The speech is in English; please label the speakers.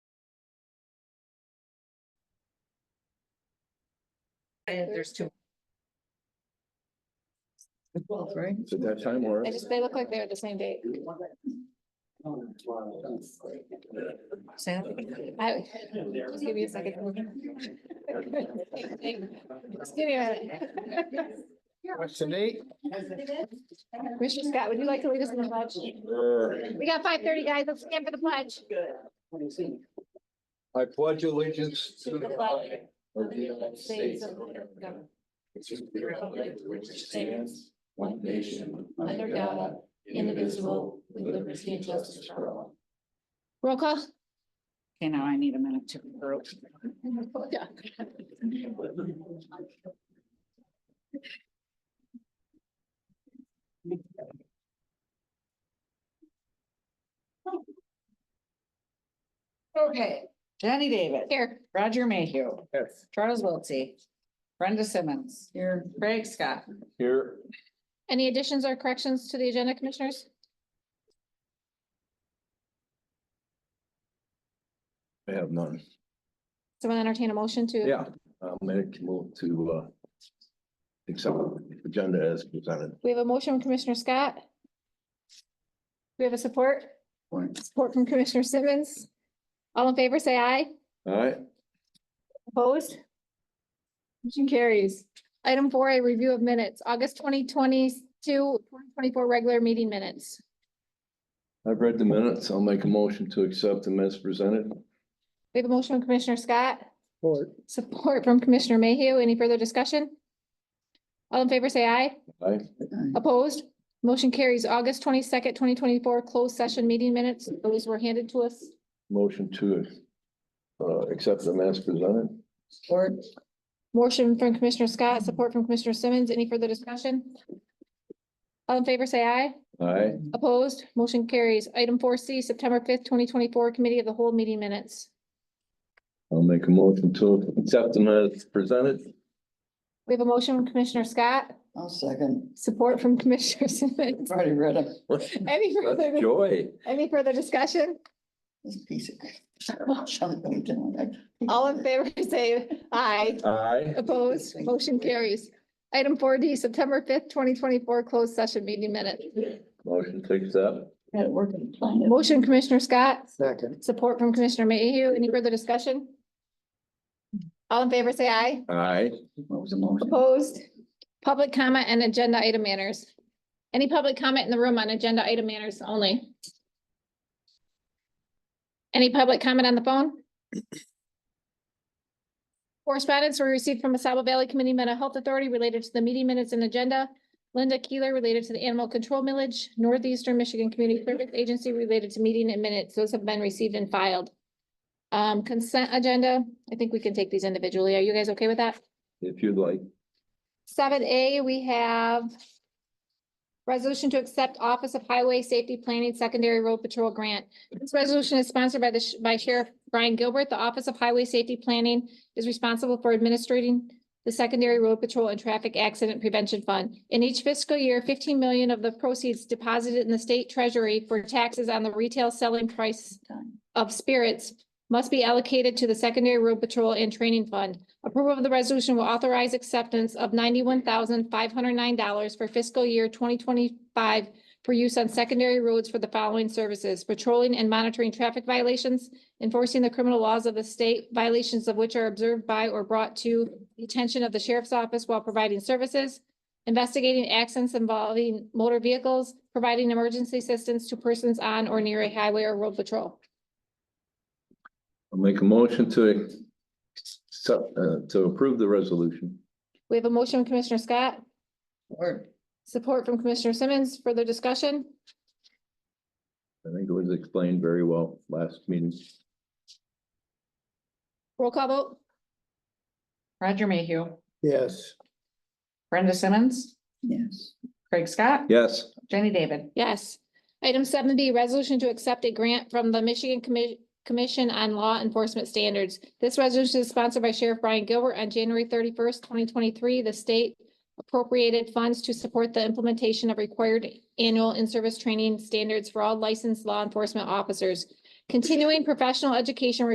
Speaker 1: I- there's two. Twelve, right?
Speaker 2: Is it that time or?
Speaker 3: I just, they look like they're the same date.
Speaker 1: Sam?
Speaker 3: I, just give me a second. Just give me a minute.
Speaker 2: Question eight?
Speaker 3: Commissioner Scott, would you like to lead us in the pledge?
Speaker 2: Uh,
Speaker 3: We got five thirty, guys. Let's stand for the pledge.
Speaker 2: I pledge allegiance to the flag of the
Speaker 3: United States of America,
Speaker 2: the
Speaker 3: republic
Speaker 2: which
Speaker 3: stands,
Speaker 2: one nation,
Speaker 3: under God, indivisible,
Speaker 2: with liberty and justice for all.
Speaker 3: Roll call.
Speaker 1: Okay, now I need a minute to.
Speaker 3: Yeah. Okay,
Speaker 1: Jenny David,
Speaker 3: here.
Speaker 1: Roger Mayhew,
Speaker 2: Yes.
Speaker 1: Charles Wiltie, Brenda Simmons. Here. Craig Scott.
Speaker 2: Here,
Speaker 3: Any additions or corrections to the agenda, commissioners?
Speaker 2: I have none.
Speaker 3: Someone entertain a motion to?
Speaker 2: Yeah, I'll make a move to, uh, accept the agenda as presented.
Speaker 3: We have a motion from Commissioner Scott. Do We have a support,
Speaker 2: All
Speaker 3: support from Commissioner Simmons. All in favor, say aye.
Speaker 2: right,
Speaker 3: Opposed? Motion carries. Item four, a review of minutes, August 2022, 2024 regular meeting minutes.
Speaker 2: I've read the minutes. I'll make a motion to accept them as presented.
Speaker 3: We have a motion from Commissioner Scott. Support from Commissioner Mayhew. Any further discussion? All in favor, say aye.
Speaker 2: Aye.
Speaker 3: Opposed? Motion carries August twenty-second, twenty twenty-four, closed session meeting minutes. Those were handed to us.
Speaker 2: Motion to, uh, accept them as presented.
Speaker 1: Or
Speaker 3: Motion from Commissioner Scott, support from Commissioner Simmons. Any further discussion? All in favor, say aye.
Speaker 2: Aye.
Speaker 3: Opposed? Motion carries. Item four C, September fifth, twenty twenty-four, Committee of the Whole Meeting Minutes.
Speaker 2: I'll make a motion to accept them as presented.
Speaker 3: We have a motion from Commissioner Scott,
Speaker 4: I'll second.
Speaker 3: support from Commissioner Simmons.
Speaker 4: Already read them.
Speaker 3: Any further,
Speaker 2: That's joy.
Speaker 3: any further discussion?
Speaker 4: This piece of. something doing it.
Speaker 3: All in favor, say aye.
Speaker 2: Aye.
Speaker 3: Opposed? Motion carries. Item four D, September fifth, twenty twenty-four, Closed Session Meeting Minutes.
Speaker 2: Motion to accept.
Speaker 4: Had it working. plan.
Speaker 3: Motion Commissioner Scott,
Speaker 4: Second.
Speaker 3: support from Commissioner Mayhew. Any further discussion? All in favor, say aye.
Speaker 2: Aye.
Speaker 4: What was the motion?
Speaker 3: Opposed? Public comment and agenda item manners. Any public comment in the room on agenda item manners only? Any public comment on the phone? Correspondence were received from Asaba Valley Committee Mental Health Authority related to the meeting minutes and agenda. Linda Keeler related to the Animal Control Millage, Northeastern Michigan Community Service Agency related to meeting and minutes. Those have been received and filed. Um, consent agenda, I think we can take these individually. Are you guys okay with that?
Speaker 2: If you'd like.
Speaker 3: Seven A, we have resolution to accept Office of Highway Safety Planning Secondary Road Patrol Grant. This resolution is sponsored by the, sh- by Sheriff Brian Gilbert. The Office of Highway Safety Planning is responsible for administering the Secondary Road Patrol and Traffic Accident Prevention Fund. In each fiscal year, fifteen million of the proceeds deposited in the state treasury for taxes on the retail selling price of spirits must be allocated to the Secondary Road Patrol and Training Fund. Approval of the resolution will authorize acceptance of ninety-one thousand five hundred nine dollars for fiscal year twenty twenty-five for use on secondary roads for the following services, patrolling and monitoring traffic violations, enforcing the criminal laws of the state, violations of which are observed by or brought to the attention of the sheriff's office while providing services, investigating accidents involving motor vehicles, providing emergency assistance to persons on or near a highway or road patrol.
Speaker 2: I'll make a motion to accept, uh, to approve the resolution.
Speaker 3: We have a motion, from Commissioner Scott? Support from Commissioner Simmons. Further discussion?
Speaker 2: I think it was explained very well last meeting.
Speaker 3: Roll call vote?
Speaker 1: Roger Mayhew,
Speaker 4: Yes.
Speaker 1: Brenda Simmons,
Speaker 4: Yes.
Speaker 1: Craig Scott,
Speaker 2: Yes.
Speaker 1: Jenny David.
Speaker 3: Yes. Item seven B, resolution to accept a grant from the Michigan Commi- Commission on Law Enforcement Standards. This resolution is sponsored by Sheriff Brian Gilbert. On January thirty-first, twenty twenty-three, the state appropriated funds to support the implementation of required annual in-service training standards for all licensed law enforcement officers. Continuing professional education